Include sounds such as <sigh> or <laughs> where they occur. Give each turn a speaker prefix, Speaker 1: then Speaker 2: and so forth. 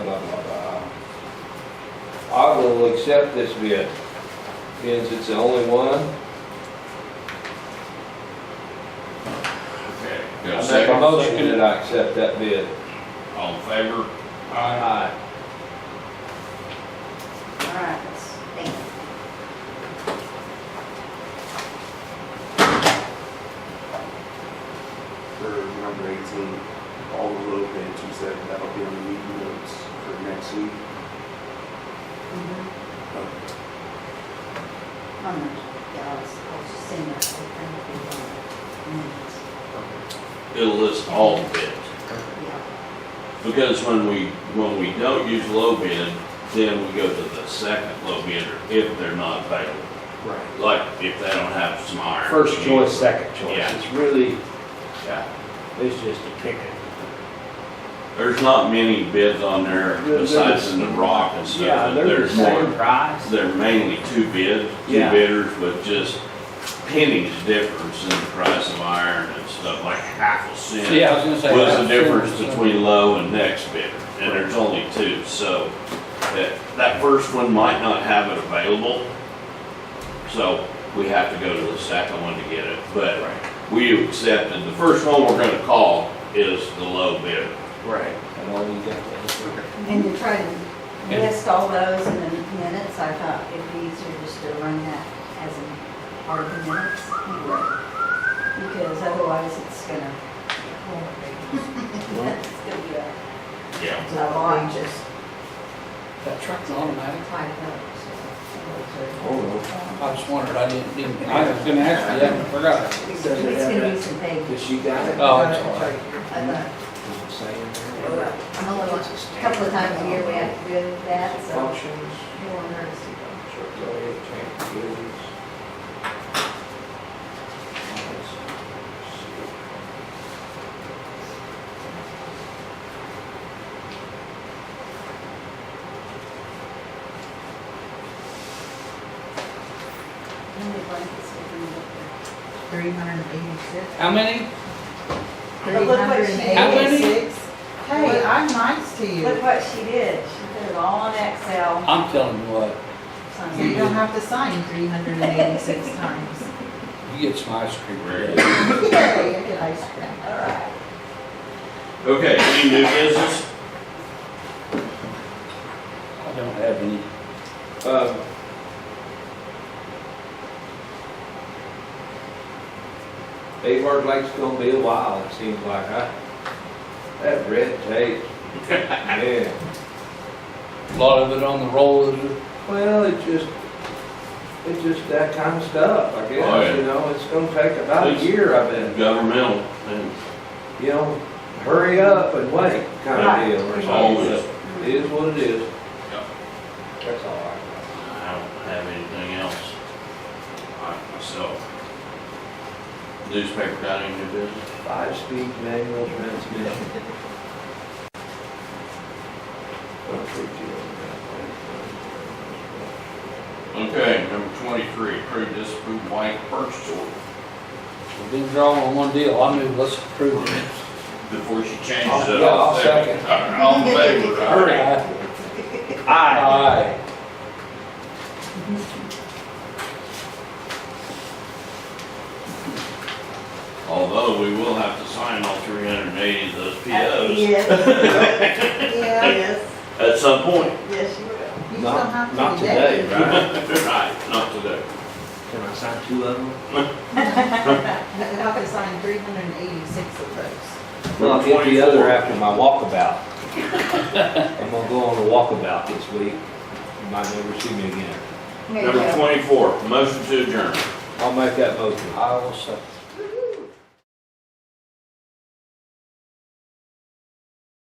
Speaker 1: I will accept this bid, since it's the only one.
Speaker 2: Okay.
Speaker 1: I
Speaker 2: Got a
Speaker 1: make a
Speaker 2: second?
Speaker 1: motion that I accept that bid.
Speaker 2: All in favor?
Speaker 1: Aye.
Speaker 3: All right, let's, thank you.
Speaker 4: for number eighteen, all the little bits you said, that'll be on the meeting notes for next week.
Speaker 3: Mm-hmm. How much? Yeah, I was, I was just saying that, I think it'll be one minute.
Speaker 2: It'll list all the bids.
Speaker 3: Yeah,
Speaker 2: Because when we, when we don't use low bid, then we go to the second low bidder if they're not available.
Speaker 4: Right.
Speaker 2: Like if they don't have some iron.
Speaker 5: First choice, second choice.
Speaker 2: Yeah.
Speaker 5: It's really,
Speaker 2: Yeah.
Speaker 5: it's just a ticket.
Speaker 2: There's not many bids on there
Speaker 5: There-
Speaker 2: besides
Speaker 5: there's-
Speaker 2: in the rock and
Speaker 5: Yeah,
Speaker 2: stuff.
Speaker 5: they're the
Speaker 2: There's
Speaker 5: same
Speaker 2: more,
Speaker 5: price.
Speaker 2: they're mainly two bids, two
Speaker 5: Yeah.
Speaker 2: bidders with just pennies difference in the price of iron and stuff, like half a cent.
Speaker 5: I was gonna
Speaker 2: was the difference between low and next bidder, and there's only two, so that, that first one might not have it available. So we have to go to the second one to get it, but we accepted, the first one we're gonna call is the low bidder.
Speaker 5: Right.
Speaker 1: And all you got there.
Speaker 3: and to try to list all those in the minutes, I thought it'd be easier just to run that as an argument minutes anyway. Because otherwise it's <laughs> gonna. It's gonna be a-
Speaker 2: Yeah.
Speaker 3: a lot just
Speaker 6: That truck's automatic.
Speaker 3: tied up.
Speaker 1: Oh,
Speaker 6: I just wondered, I didn't, didn't.
Speaker 7: I was gonna ask you, I forgot.
Speaker 3: so. It's gonna be some big.
Speaker 5: Does she got it?
Speaker 7: Oh, I'm sorry.
Speaker 3: I thought,
Speaker 5: Is it saying there?
Speaker 3: I'm a little, a couple of times a year we have to do that, so.
Speaker 5: Functions,
Speaker 3: you won't notice it.
Speaker 5: circulate, change duties.
Speaker 3: How many blankets did we look for?
Speaker 8: Three hundred and eighty-six.
Speaker 7: How many?
Speaker 8: But look what she
Speaker 3: 386.
Speaker 7: How many?
Speaker 8: did. Hey, I'm nice to you.
Speaker 3: Look what she did. She did it all on Excel.
Speaker 7: I'm telling you what,
Speaker 8: So you don't have to sign three hundred and eighty-six <laughs> times.
Speaker 7: you get some ice cream.
Speaker 2: Really?
Speaker 8: Yay, I get ice cream.
Speaker 3: All right.
Speaker 2: Okay, any new business?
Speaker 7: I don't have any.
Speaker 1: Um, Avard Lake's gonna be a while, it seems like, huh? That red
Speaker 2: <laughs>
Speaker 1: tape, yeah.
Speaker 7: A lot of it on the roll, is it?
Speaker 1: Well, it just, it's just that kind of stuff, I
Speaker 2: Oh, yeah.
Speaker 1: guess, you know, it's gonna take about a year, I bet.
Speaker 2: Governmental, and
Speaker 1: You know, hurry up and wait,
Speaker 3: Right.
Speaker 1: kind of deal, or
Speaker 2: always,
Speaker 1: something. It is what it is.
Speaker 2: Yeah.
Speaker 1: That's all right.
Speaker 2: I don't have anything else. I, myself. Newspaper got any new business?
Speaker 1: Five-speed manual transmission. Don't forget that.
Speaker 2: Okay, number twenty-three, approve, disapprove blank purchase order
Speaker 7: We've been drawing on one deal, I knew, let's approve it.
Speaker 2: before she changes it.
Speaker 1: I'll- yeah, I'll second.
Speaker 2: All right, All in favor? all right.
Speaker 7: Aye.
Speaker 2: Although we will have to sign all three hundred and eighty of those POs
Speaker 3: Yes. Yes,
Speaker 2: at some point. <laughs>
Speaker 3: yes, you will.
Speaker 8: You still have
Speaker 1: Not, not
Speaker 8: to. do
Speaker 1: today, right?
Speaker 2: Right, not today.
Speaker 5: Can I sign two of them?
Speaker 8: You have to sign three hundred and eighty-six of those.
Speaker 1: Well, I'll get the other after my
Speaker 5: <laughs>
Speaker 1: walkabout. I'm gonna go on a walkabout this week. You might never see me again.
Speaker 3: There you
Speaker 2: Number
Speaker 3: go.
Speaker 2: twenty-four, motion to adjourn.
Speaker 1: I'll make that motion.
Speaker 7: I will second.